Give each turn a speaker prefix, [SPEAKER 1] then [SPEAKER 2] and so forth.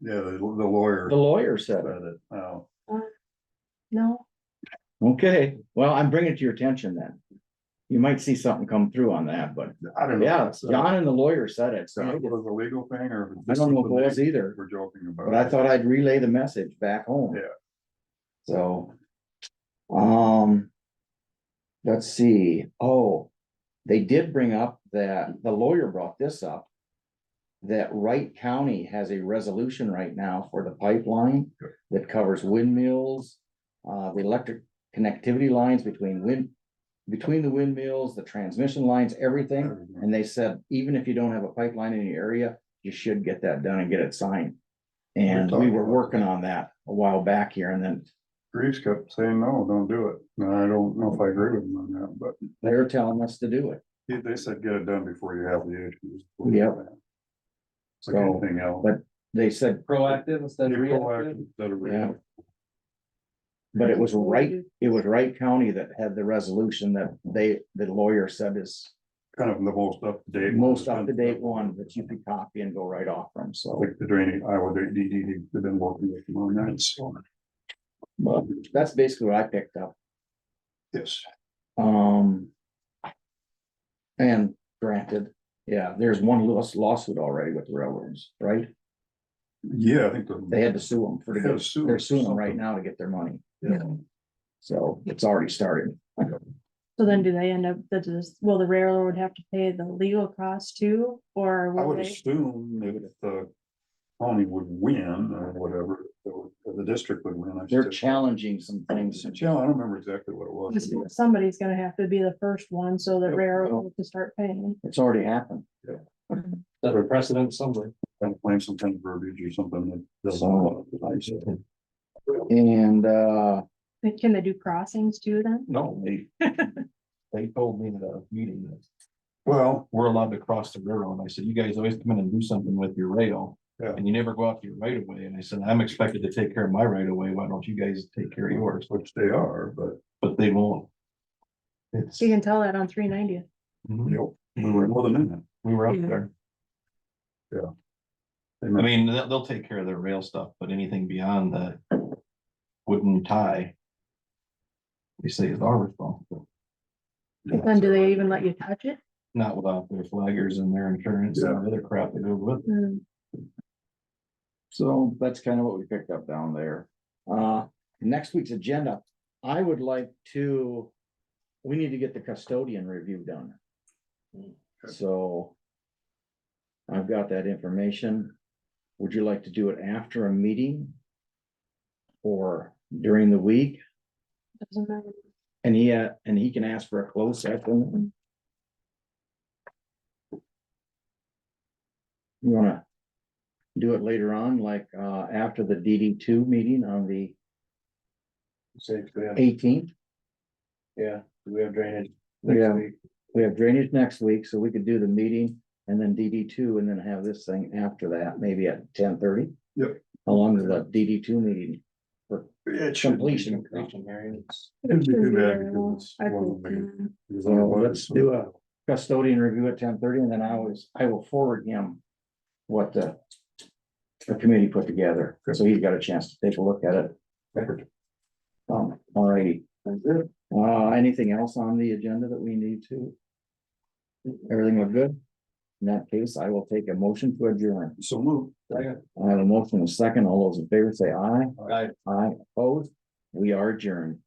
[SPEAKER 1] Yeah, the the lawyer
[SPEAKER 2] The lawyer said
[SPEAKER 1] said
[SPEAKER 2] it.
[SPEAKER 1] it, oh,
[SPEAKER 3] No,
[SPEAKER 2] Okay, well, I'm bringing it to your attention then. You might see something come through on that, but
[SPEAKER 1] I don't know.
[SPEAKER 2] yeah,
[SPEAKER 1] So-
[SPEAKER 2] John and the lawyer said it,
[SPEAKER 1] so
[SPEAKER 2] so
[SPEAKER 1] it was a legal thing or?
[SPEAKER 2] I don't know if it was either,
[SPEAKER 1] We're joking about.
[SPEAKER 2] but I thought I'd relay the message back home.
[SPEAKER 1] Yeah.
[SPEAKER 2] So. Um. Let's see, oh, they did bring up that, the lawyer brought this up. That Wright County has a resolution right now for the pipeline
[SPEAKER 1] Sure.
[SPEAKER 2] that covers windmills. Uh, the electric connectivity lines between wind, between the windmills, the transmission lines, everything. And they said, even if you don't have a pipeline in your area, you should get that done and get it signed. And we
[SPEAKER 1] talking
[SPEAKER 2] were
[SPEAKER 1] about
[SPEAKER 2] working on that a while back here and then
[SPEAKER 1] Greaves kept saying, no, don't do it. And I don't know if I agree with him on that, but
[SPEAKER 2] they're telling us to do it.
[SPEAKER 1] he, they said, get it done before you have the issues.
[SPEAKER 2] Yep.
[SPEAKER 1] It's Like
[SPEAKER 2] So,
[SPEAKER 1] anything else.
[SPEAKER 2] but They said,
[SPEAKER 4] Proactive instead
[SPEAKER 1] Be
[SPEAKER 4] of
[SPEAKER 1] proactive
[SPEAKER 4] reactive.
[SPEAKER 1] instead of
[SPEAKER 2] yeah.
[SPEAKER 1] reactive.
[SPEAKER 2] But it was Wright, it was Wright County that had the resolution that they, the lawyer said is
[SPEAKER 1] Kind of the most up to date.
[SPEAKER 2] most up to date one that you could copy and go right off from, so.
[SPEAKER 1] Like the drainage, Iowa, they, they, they've been working with them on that, so,
[SPEAKER 2] but That's basically what I picked up.
[SPEAKER 1] yes.
[SPEAKER 2] Um. And granted, yeah, there's one laws- lawsuit already with the railroads, right?
[SPEAKER 1] Yeah, I think the.
[SPEAKER 2] They had to sue them for the,
[SPEAKER 1] Had to sue
[SPEAKER 2] they're
[SPEAKER 1] them for
[SPEAKER 2] suing them right
[SPEAKER 1] something.
[SPEAKER 2] now to get their money.
[SPEAKER 1] Yeah.
[SPEAKER 2] So it's already started.
[SPEAKER 3] so then do they end up, that is, will the railroad have to pay the legal costs too, or
[SPEAKER 1] I
[SPEAKER 3] will
[SPEAKER 1] would
[SPEAKER 3] they?
[SPEAKER 1] assume that if the county would win or whatever, the the district would win. I
[SPEAKER 2] They're
[SPEAKER 1] should say.
[SPEAKER 2] challenging some things.
[SPEAKER 1] Yeah, I don't remember exactly what it was.
[SPEAKER 3] Somebody's gonna have to be the first one, so the
[SPEAKER 1] Yeah,
[SPEAKER 2] well-
[SPEAKER 3] railroad to start paying.
[SPEAKER 2] It's already happened.
[SPEAKER 4] Set a precedent somewhere.
[SPEAKER 1] Kind of claim some kind of verbiage or something that doesn't.
[SPEAKER 2] And, uh,
[SPEAKER 3] But Can they do crossings too then?
[SPEAKER 4] No, they, they told me in a meeting that
[SPEAKER 1] Well,
[SPEAKER 4] we're allowed to cross the railroad. And I said, you guys always come in and do something with your rail.
[SPEAKER 1] Yeah.
[SPEAKER 4] And you never go out to your right of way. And I said, I'm expected to take care of my right of way. Why don't you guys take care of yours?
[SPEAKER 1] which they are, but
[SPEAKER 4] But they won't. It's,
[SPEAKER 3] You can tell that on three ninety.
[SPEAKER 1] you
[SPEAKER 4] Mhm.
[SPEAKER 1] know, we were more than in it.
[SPEAKER 4] we were up
[SPEAKER 3] Yeah.
[SPEAKER 4] there.
[SPEAKER 1] They
[SPEAKER 4] I
[SPEAKER 1] meant-
[SPEAKER 4] mean, they'll, they'll take care of their rail stuff, but anything beyond the wooden tie. We say is our responsibility,
[SPEAKER 3] Then do they even let you touch it?
[SPEAKER 4] not without their flaggers and their insurance and the other crap that goes with it.
[SPEAKER 3] Hmm.
[SPEAKER 2] so that's kind of what we picked up down there. Uh, next week's agenda, I would like to, we need to get the custodian review done.
[SPEAKER 1] Hmm,
[SPEAKER 2] So I've got that information. Would you like to do it after a meeting? Or during the week?
[SPEAKER 3] Doesn't matter.
[SPEAKER 2] And he, uh, and he can ask for a closed session. You wanna do it later on, like, uh, after the DD two meeting on the eighteenth?
[SPEAKER 4] Yeah, we have drainage.
[SPEAKER 2] Yeah. We have drainage next week, so we could do the meeting and then DD two and then have this thing after that, maybe at ten thirty?
[SPEAKER 1] Yep.
[SPEAKER 2] How long is that DD two meeting?
[SPEAKER 1] It should be-
[SPEAKER 2] Completion.
[SPEAKER 1] It'd be too
[SPEAKER 3] Shouldn't be
[SPEAKER 1] bad
[SPEAKER 3] very long.
[SPEAKER 1] because it's
[SPEAKER 3] I
[SPEAKER 1] one of
[SPEAKER 3] think,
[SPEAKER 1] the main-
[SPEAKER 3] yeah.
[SPEAKER 1] because
[SPEAKER 2] So
[SPEAKER 1] otherwise-
[SPEAKER 2] let's do a custodian review at ten thirty and then I always, I will forward him what the the committee put together, so he's got a chance to take a look at it.
[SPEAKER 1] Perfect.
[SPEAKER 2] Um, alrighty. Uh, anything else on the agenda that we need to? Everything look good? In that case, I will take a motion to adjourn.
[SPEAKER 1] So move.
[SPEAKER 2] I have a motion and a second. All those in favor say aye.
[SPEAKER 4] Aye.
[SPEAKER 2] Aye opposed. We are adjourned.